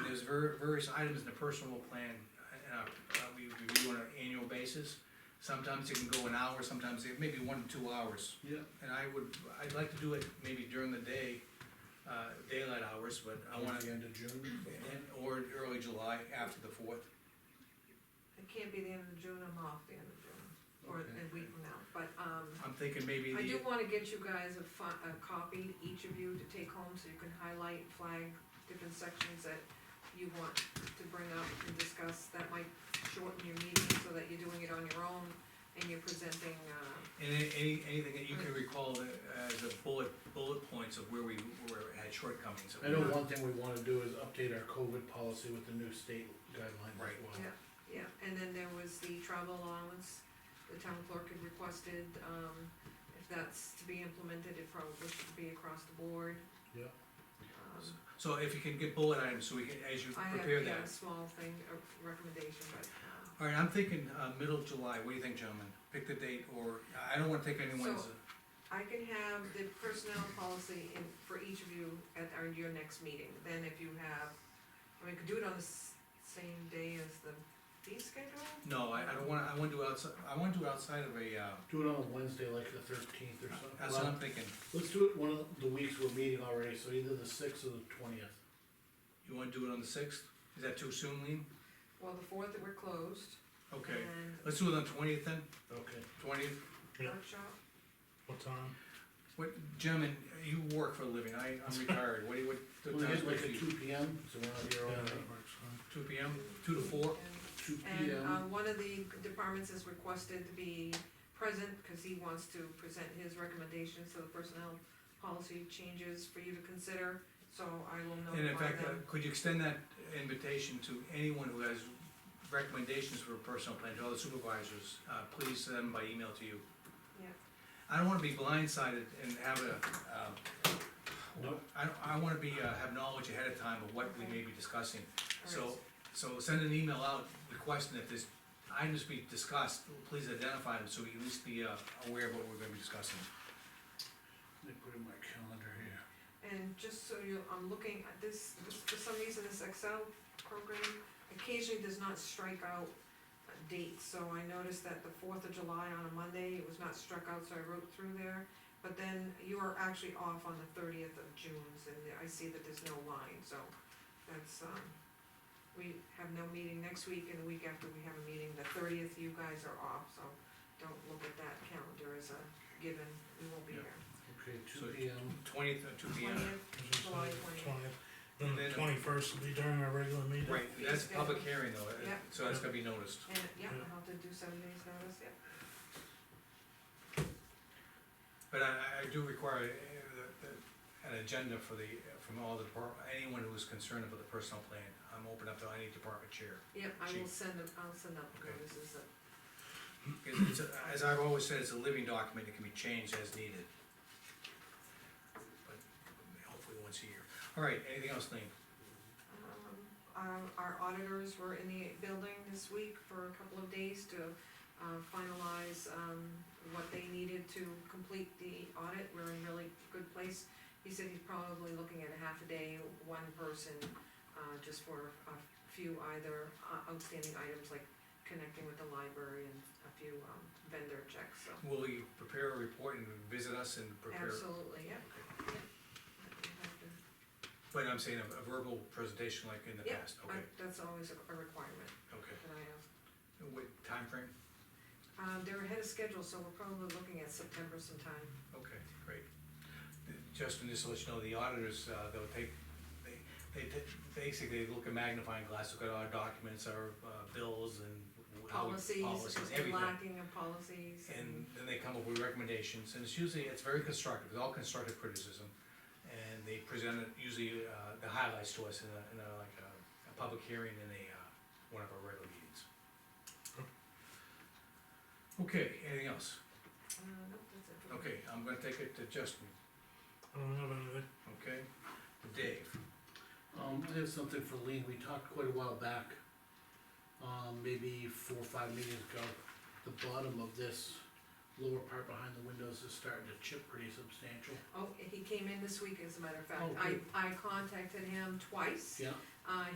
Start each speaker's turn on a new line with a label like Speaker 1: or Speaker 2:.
Speaker 1: ver- various items in the personal plan, uh, uh, we review on an annual basis. Sometimes it can go an hour, sometimes it may be one to two hours.
Speaker 2: Yeah.
Speaker 1: And I would, I'd like to do it maybe during the day, uh, daylight hours, but I wanna,
Speaker 2: The end of June.
Speaker 1: and- or early July after the fourth.
Speaker 3: It can't be the end of June, I'm off the end of June, or
Speaker 2: Okay.
Speaker 3: a week from now, but, um,
Speaker 1: I'm thinking maybe
Speaker 3: I do
Speaker 1: the,
Speaker 3: wanna get you guys a fi- a copy, each of you, to take home, so you can highlight, flag different sections that you want to bring up and discuss, that might shorten your meeting, so that you're doing it on your own, and you're presenting, uh,
Speaker 1: any, any- anything that you can recall that, as a bullet, bullet points of where we, where it had shortcomings.
Speaker 2: I know one thing we wanna do is update our COVID policy with the new state guidelines as
Speaker 1: Right.
Speaker 2: well.
Speaker 3: Yeah, and then there was the travel allowance, the town clerk had requested, um, if that's to be implemented, it probably should be across the board.
Speaker 2: Yeah.
Speaker 3: Um,
Speaker 1: So if you can get bullet items, so we can, as you
Speaker 3: I have,
Speaker 1: prepare
Speaker 3: yeah, a
Speaker 1: that.
Speaker 3: small thing, a recommendation, but, um,
Speaker 1: All right, I'm thinking, uh, middle of July, what do you think, gentlemen? Pick the date, or, I don't wanna take anyone's,
Speaker 3: So- I can have the personnel policy in, for each of you at our, your next meeting, then if you have, I mean, we could do it on the s- same day as the fee schedule?
Speaker 1: no, I, I don't wanna, I wanna do outside, I wanna do outside of a, uh,
Speaker 2: Do it on a Wednesday, like the thirteenth or something.
Speaker 1: that's what I'm thinking.
Speaker 2: Let's do it one of the weeks we're meeting already, so either the sixth or the twentieth.
Speaker 1: You wanna do it on the sixth? Is that too soon, Lean?
Speaker 3: Well, the fourth, we're closed,
Speaker 1: Okay,
Speaker 3: and
Speaker 1: let's do it on twentieth then,
Speaker 2: Okay.
Speaker 1: twentieth.
Speaker 4: Yeah.
Speaker 3: workshop,
Speaker 4: What time?
Speaker 1: What, gentlemen, you work for a living, I, I'm retired, what do you, what?
Speaker 2: We'll
Speaker 1: the time's
Speaker 2: get like
Speaker 1: good
Speaker 2: a
Speaker 1: for you?
Speaker 2: two P M, so we're not here all
Speaker 4: Yeah,
Speaker 2: night.
Speaker 4: that works fine.
Speaker 1: Two P M, two to four?
Speaker 3: and
Speaker 2: Two P
Speaker 3: And,
Speaker 2: M,
Speaker 3: um, one of the departments is requested to be present, cause he wants to present his recommendations to the personnel policy changes for you to consider, so I will
Speaker 1: And in
Speaker 3: notify
Speaker 1: fact, uh,
Speaker 3: them.
Speaker 1: could you extend that invitation to anyone who has recommendations for a personal plan, to all the supervisors? Uh, please send them by email to you.
Speaker 3: Yeah.
Speaker 1: I don't wanna be blindsided and have a, um,
Speaker 2: Nope.
Speaker 1: I, don't- I wanna be, uh, have knowledge ahead of time of what we may be discussing. uh, So,
Speaker 3: Alright,
Speaker 1: so send an email out requesting if there's items be discussed, please identify them, so we at least be, uh, aware of what we're gonna be discussing.
Speaker 2: let me put in my calendar here.
Speaker 3: And just so you, I'm looking at this, this- for some reason, this Excel program occasionally does not strike out uh, dates, so I noticed that the fourth of July on a Monday, it was not struck out, so I wrote through there. But then you are actually off on the thirtieth of June, and I see that there's no line, so that's, um, we have no meeting next week, and the week after we have a meeting, the thirtieth, you guys are off, so don't look at that calendar as a given, we won't be
Speaker 1: Yeah. uh,
Speaker 3: here.
Speaker 2: Okay,
Speaker 1: So-
Speaker 2: two P M,
Speaker 1: Twentieth or two P M.
Speaker 3: Twentieth, July 20th.
Speaker 4: Twentieth.
Speaker 1: And
Speaker 4: Then
Speaker 1: then-
Speaker 4: the twenty-first will be during our regular meeting.
Speaker 1: Right, that's public hearing though, uh,
Speaker 3: Yeah.
Speaker 1: so that's gonna be noticed.
Speaker 3: And, yeah,
Speaker 4: Yeah.
Speaker 3: I'll have to do seven days notice, yeah.
Speaker 1: But I, I- I do require uh, the- the- an agenda for the, from all the depart, anyone who is concerned about the personal plan. I'm open up to any department chair.
Speaker 3: Yeah, I will
Speaker 1: Chief.
Speaker 3: send them, I'll send out the
Speaker 1: Okay.
Speaker 3: notices, uh,
Speaker 1: 'Cause it's a- As I've always said, it's a living document, it can be changed as needed. But hopefully once a year. All right, anything else, Lean?
Speaker 3: um, our, our auditors were in the building this week for a couple of days to, uh, finalize, um, what they needed to complete the audit, we're in really good place. He said he's probably looking at a half a day, one person, uh, just for a few either uh, outstanding items like connecting with the library and a few, um, vendor checks, so.
Speaker 1: Will you prepare a report and visit us and prepare?
Speaker 3: Absolutely, yeah,
Speaker 1: Okay.
Speaker 3: we have to
Speaker 1: But I'm saying a a verbal presentation like in the
Speaker 3: Yeah,
Speaker 1: past,
Speaker 3: I-
Speaker 1: okay,
Speaker 3: That's always a a requirement
Speaker 1: okay.
Speaker 3: that I have.
Speaker 1: What timeframe?
Speaker 3: Um, they're ahead of schedule, so we're probably looking at September sometime.
Speaker 1: Okay, great. Justin, just to let you know, the auditors, uh, they'll take, they, they, t- basically look at magnifying glass, look at our documents, our, uh, bills and. how we-
Speaker 3: Policies,
Speaker 1: Policies,
Speaker 3: the
Speaker 1: everything.
Speaker 3: lacking of policies.
Speaker 1: And then they come up with recommendations, and it's usually, it's very constructive, it's all constructive criticism. And they present it, usually, uh, the highlights to us in a, in a, like a, a public hearing in a, uh, one of our regular meetings. Okay, anything else?
Speaker 3: Uh, no, that's it. for me.
Speaker 1: Okay, I'm gonna take it to Justin,
Speaker 4: I don't have anything.
Speaker 1: okay? Dave?
Speaker 2: um, I have something for Lean, we talked quite a while back. Um, maybe four or five meetings ago, the bottom of this lower part behind the windows is starting to chip pretty substantial.
Speaker 3: Oh, he came in this week, as a matter of fact.
Speaker 2: Oh,
Speaker 3: I,
Speaker 2: good.
Speaker 3: I contacted him twice.
Speaker 2: Yeah,
Speaker 3: Uh,